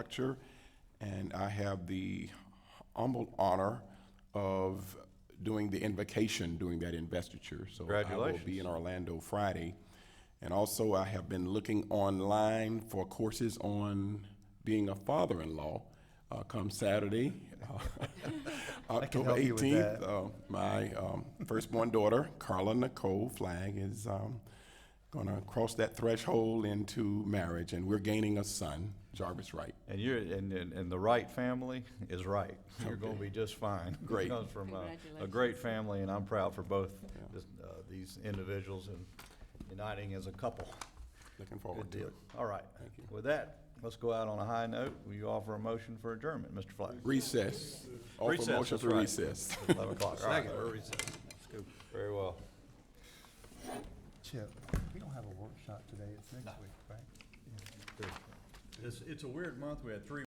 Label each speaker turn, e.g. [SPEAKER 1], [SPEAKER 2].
[SPEAKER 1] Director, and I have the humble honor of doing the invocation during that investiture. So I will be in Orlando Friday. And also, I have been looking online for courses on being a father-in-law uh, come Saturday, uh, October
[SPEAKER 2] help you with
[SPEAKER 1] 18th.
[SPEAKER 2] that.
[SPEAKER 1] uh, My um, firstborn daughter, Carla Nicole Flag, is um, gonna cross that threshold into marriage, and we're gaining a son, Jarvis Wright.
[SPEAKER 2] And you're, and, and, and the Wright family is right. You're gonna be just fine.
[SPEAKER 1] Great.
[SPEAKER 2] Comes from a, a
[SPEAKER 3] Congratulations.
[SPEAKER 2] great family, and I'm proud for both this- uh, these individuals and uniting as a couple.
[SPEAKER 1] Looking
[SPEAKER 2] Good
[SPEAKER 1] forward to
[SPEAKER 2] deal.
[SPEAKER 1] it.
[SPEAKER 2] All right. With that, let's go out on a high note. Will you offer a motion for adjournment, Mr. Flag?
[SPEAKER 1] Recess. Offer
[SPEAKER 2] Recess,
[SPEAKER 1] motion
[SPEAKER 2] that's
[SPEAKER 1] for
[SPEAKER 2] right.
[SPEAKER 1] recess.
[SPEAKER 2] Eleven o'clock. All right. Very well.
[SPEAKER 4] Chip, we don't have a workshop today, it's next week, right?
[SPEAKER 5] It's, it's a weird month. We had three